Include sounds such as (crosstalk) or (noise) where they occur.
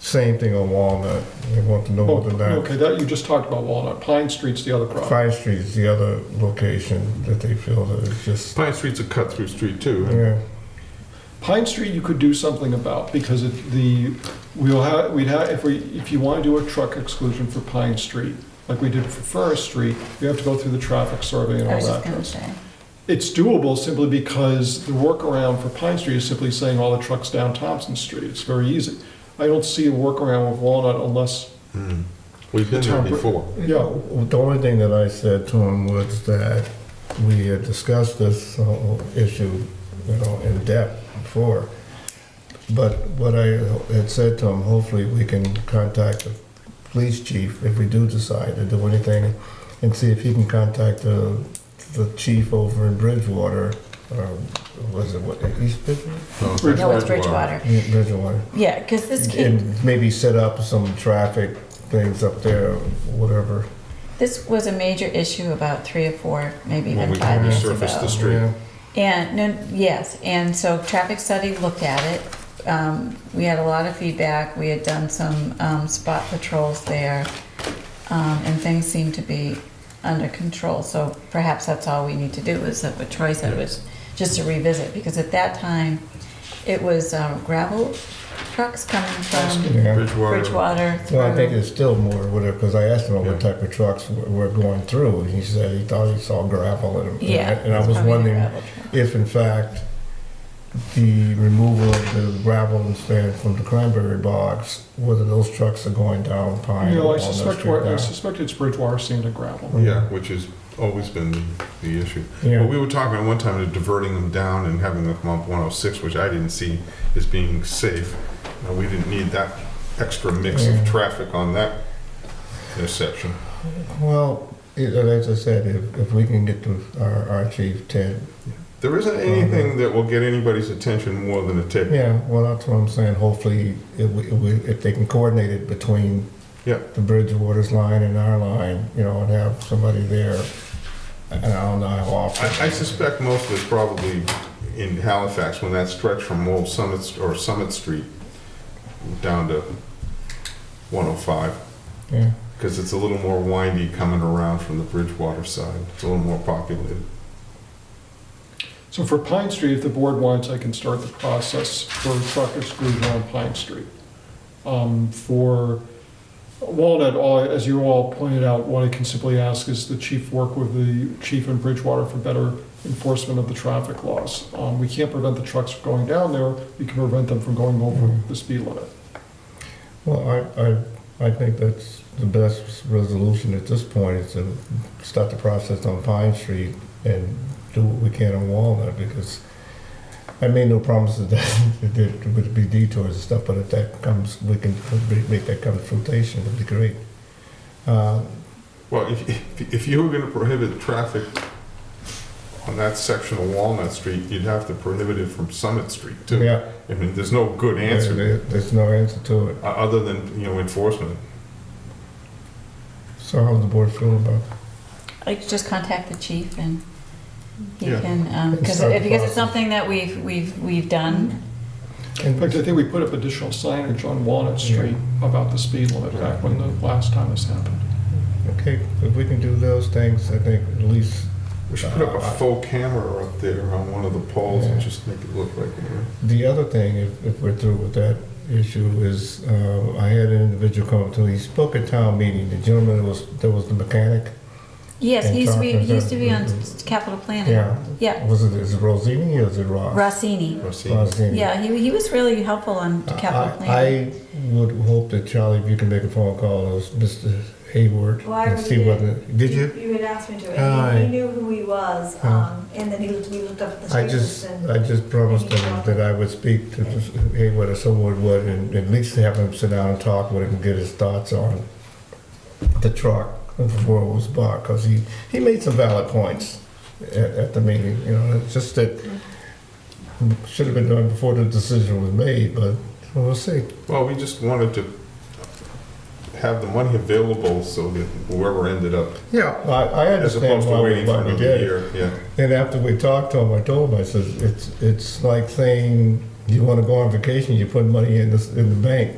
Same thing on Walnut. They want to know Oh, whether or not Okay, that, you just talked about Walnut. Pine Street's the other problem. Fine Street is the other location that they feel that it's just, Pine Street's a cut-through street too. and yeah. Pine Street you could do something about because it, the, we'll have, we'd have, if we, if you want to do a truck exclusion for Pine Street, like we did for Forest Street, we have to go through the traffic survey and I all was just that. gonna say. It's doable simply because the workaround for Pine Street is simply saying all the trucks down Thompson Street. It's very easy. I don't see a workaround with Walnut unless, We've been there Temper- before. yeah, The only thing that I said to him was that we had discussed this whole issue, you know, in depth before. But what I had said to him, hopefully we can contact the police chief if we do decide to do anything and see if he can contact the, the chief over in Bridgewater, or was it what, East Bridgewater? No, it's No, it's Uh, Bridgewater. Bridgewater. Yeah, Bridgewater. Yeah, because this came, And maybe set up some traffic things up there, whatever. this was a major issue about three or four, maybe When even we five years resurfaced ago. the street. Yeah. And, no, yes, and so traffic study looked at it. Um, we had a lot of feedback. We had done some, um, spot patrols there. Um, and things seemed to be under control. So perhaps that's all we need to do is that what Troy said was just to revisit, because at that time, it was um, gravel trucks coming from Yeah. Bridgewater. Bridgewater through. Well, I think it's still more whatever, because I asked him about what Yeah. type of trucks were were going through, and he said he thought he saw gravel in them. Yeah. And I it's was probably the wondering gravel truck. if in fact, the removal of the gravel and sand from the cranberry bogs, whether those trucks are going down Pine you or know, I Walnut suspect, Street I now. suspect it's Bridgewater sand and gravel. Yeah, which has always been the, the issue. Well, Yeah, we were talking at one time of diverting them down and having them come up 106, which I didn't see as being safe. Uh, we didn't need that extra mix Yeah. of traffic on that intersection. well, it- as I said, if, if we can get to our, our chief Ted, There isn't anything that will get anybody's attention more than a ticket. Mm-hmm. yeah, well, that's what I'm saying, hopefully, if, we- if we- if they can coordinate it between Yeah. the Bridgewater's line and our line, you know, and have somebody there. And I don't know how often. I, I suspect most of it's probably in Halifax when that stretch from Old Summit St- or Summit Street down to 105. Yeah, Because it's a little more windy coming around from the Bridgewater side. It's a little more populated. So for Pine Street, if the board wants, I can start the process for truck exclusion on Pine Street. Um, For Walnut, all- as you all pointed out, what I can simply ask is the chief work with the chief in Bridgewater for better enforcement of the traffic laws. Um, We can't prevent the trucks from going down there, we can prevent them from going over the speed limit. well, I, I, I think that's the best resolution at this point, is to start the process on Pine Street and do what we can on Walnut, because I made no promises (laughs) that there would be detours and stuff, but if that comes, we can make that confrontation, it'd be great. Uh, Well, if, if- if you were going to prohibit traffic on that section of Walnut Street, you'd have to prohibit it from Summit Street too. Yeah. I mean, there's no good answer There- there, There's no answer to it. o- other than, you know, enforcement. So how does the board feel about that? Like, just contact the chief and he Yeah. can, um, And because, start the because process. it's something that we've, we've, we've done. In fact, I think we put up additional signage on Walnut Street about the speed limit back when the last time this happened. Okay, if we can do those things, I think at least, We should put up a faux camera up there on one of the poles and just make it look like, a- the other thing, if, if we're through with that issue, is, uh, I had an individual come up to me, he spoke at town meeting, the gentleman was, there was the mechanic, Yes, And he used to be, talk to he used to be on them. capital planning. yeah, Yeah, was it, is it Rosini or is it Ross? Rossini. or see. Rossini. Yeah, he, he was really helpful on Uh, I- capital planning. I would hope that Charlie, if you can make a phone call, to Mr. Hayward, Well, I and already see did. whether, did you? You had asked me to, Ah, and he- he knew who he was, Ah. um, and then he looked, we looked up at the I street just, list I and, just promised him that I would speak to Hayward or someone would, and at least have him sit down and talk with him and get his thoughts on the truck before it was bought, because he, he made some valid points at, at the meeting, you know, it's just that should have been done before the decision was made, but we'll see. Well, we just wanted to have the money available so that whoever ended up, Yeah. I, I as understand opposed to why we, waiting for why we another did it. year, yeah. And after we talked to him, I told him, I says, it's, it's like saying, you wanna go on vacation, you put money in this, in the bank,